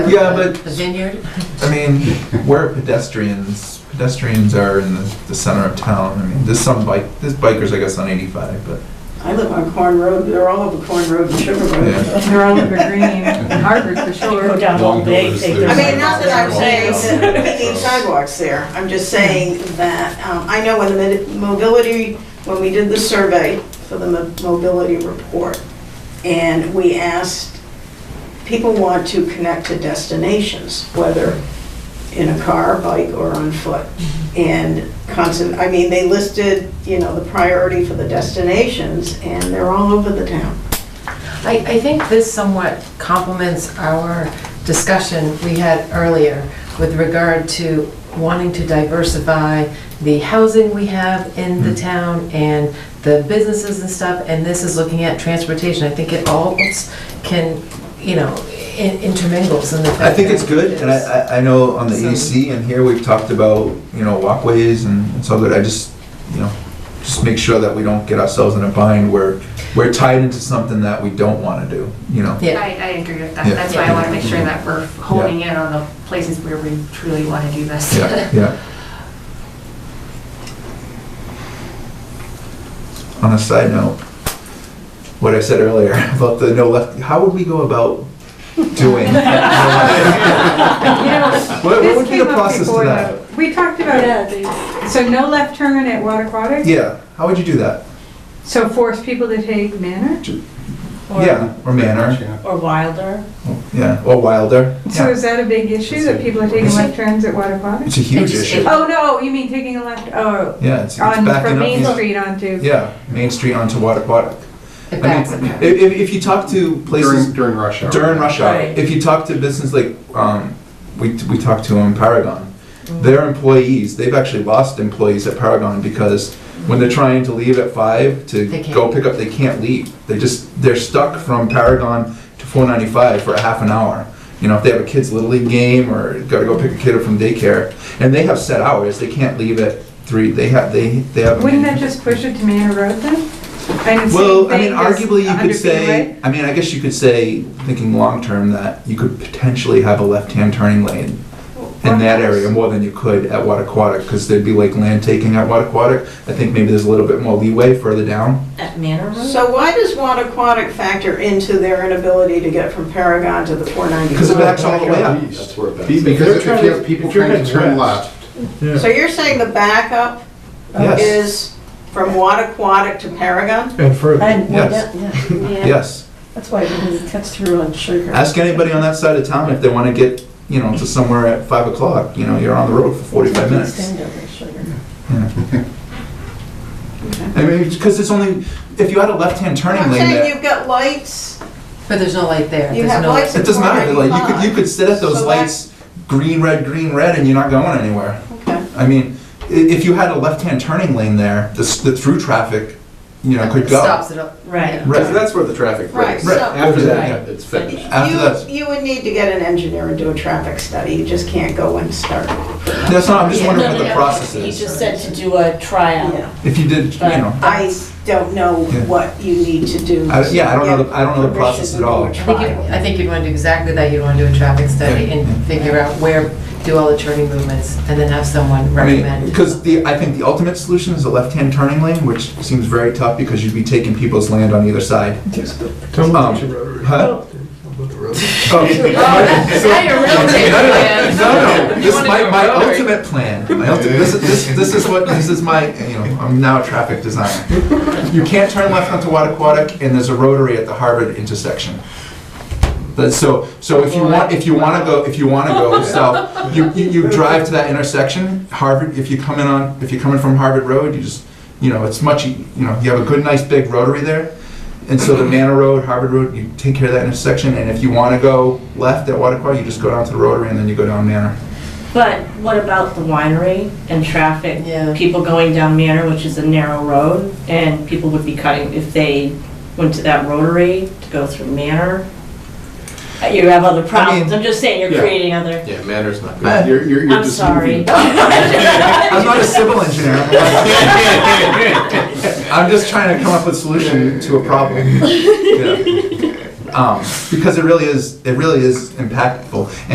Yeah, but- The vineyard? I mean, where are pedestrians, pedestrians are in the, the center of town. I mean, there's some bike, there's bikers, I guess, on 85, but I live on Corn Road, they're all over Corn Road and Sugar Road. Yeah. They're all over green, and Harvard for Go sure. Oh, down all Long day, doors, take there's- I their. mean, not that I'm saying that we need Sidewalks. sidewalks there, I'm just saying that, um, I know when the mid- mobility, when we did the survey for the mo- mobility report, and we asked, people want to connect to destinations, whether in a car, bike, or on foot. And constant, I mean, they listed, you know, the priority for the destinations, and they're all over the town. I, I think this somewhat complements our discussion we had earlier with regard to wanting to diversify the housing we have in Mm-hmm. the town and the businesses and stuff, and this is looking at transportation. I think it all can, you know, in- intermingles in the. I think it's good, and I, I- I know on the EDC and here, we've talked about, you know, walkways and and so that, I just, you know, just make sure that we don't get ourselves in a bind where we're tied into something that we don't wanna do, you know? Yeah. I, I agree with that. Yeah. That's why I want to make sure that we're honing Yeah. in on the places where we truly want to do this. Yeah, yeah. On a side note, what I said earlier about the no left, how would we go about doing? What what This would be came the up process to before, that? though. We talked about, so no left turn at Water Aquatic? Yeah, how would you do that? So force people to take Manor? Yeah, or manner, Or Wilder. yeah, or wilder. So Yeah, is that a big issue, that people are taking left turns at Water Aquatic? It's a huge It's- issue. Oh, no, you mean taking a left, oh, Yeah, it's it's on, from backing Main up. Street onto, Yeah, Main Street onto Waterquatic. It I backs mean, up. if, if if you talk to places During, during rush hour. during rush hour. Right. If you talk to business like, um, we, we talked to them in Paragon, Mm-hmm. their employees, they've actually lost employees at Paragon because when they're trying to leave at five to They can't. go pick up, they can't leave. They just, they're stuck from Paragon to four ninety-five for a half an hour. You know, if they have a kid's little league game or gotta go pick a kid up from daycare, and they have set hours, they can't leave at three, they have, they, they have. wouldn't that just push it to Manor Road then? And it's the Well, I same mean, thing, just arguably, you under could say, Beanway? I mean, I guess you could say, thinking long-term, that you could potentially have a left-hand turning lane in that area more than you could at Water Aquatic, because there'd be like land taking at Water Aquatic. I think maybe there's a little bit more leeway further down. At Manor Road? So why does Watt Aquatic factor into their inability to get from Paragon to the 495? Because it backs all the way up. That's where it backs. Because if you have people trying to turn left, So you're saying the backup Yes, Oh, is from Watt Aquatic to Paragon? And further, And, Yes. yeah, yes. that's why it cuts through on sugar. Ask anybody on that side of town if they want to get, you know, to somewhere at five o'clock, you know, you're on the road for forty-five minutes. Stand over sugar. I mean, because it's only, if you had a left-hand turning I'm lane there. saying you've got lights, But there's no light there. you There's have no- lights at It doesn't matter, like, you could, you 495. could sit at those So lights, green, red, green, red, and you're not going anywhere. Okay. I mean, i- if you had a left-hand turning lane there, the, s- the through traffic, you know, could go. Stops it up. Right. Right. Because that's where the traffic Right, breaks. Right, so- After Right. that, it's finished. After that- You, you would need to get an engineer and do a traffic study, you just can't go and start. That's not, I'm just Yeah. wondering No, what no, the no. process He is. just said to do a tryout. Yeah. If you did, you Right. know, I don't know Yeah. what you need to do. I- yeah, I don't know to the- get I don't know the permission process to at do a all. I I think, you- trial. I think you'd want to do exactly that, you'd want to do a traffic study Yeah. and figure out where, do all the turning movements, and then have someone I mean, recommend. because the, I think the ultimate solution is a left-hand turning lane, which seems very tough because you'd be taking people's land on either side. tell me Um, what you wrote. Huh? Oh, that's- now you're real taking No, no, land. No, no, You this is wanna my, go my rogue. ultimate plan. My ulti- this, is- this, this is what, this is my, you know, I'm now a traffic designer. You can't turn left onto Wattaquatic, and there's a rotary at the Harvard intersection. But so, so if you want, if you wanna go, if you wanna go south, you, you, you drive to that intersection, Harvard, if you come in on, if you're coming from Harvard Road, you just, you know, it's much, e- you know, you have a good, nice big rotary there. And so the Manor Road, Harvard Road, you take care of that intersection, and if you wanna go left at Wattaquatic, you just go down to the rotary and then you go down Manor. But what about the winery and traffic? Yeah. People going down Manor, which is a narrow road, and people would be cutting, if they went to that rotary to go through Manor. Uh, You have other problems. I'm just saying, you're Yeah. creating other, Yeah, manners not Uh, good. You're, you're, you're I'm just sorry. moving. I'm not a civil engineer. I'm a- I'm just trying to come up with a solution to a problem. Yeah. Um, because it really is, it really is impactful.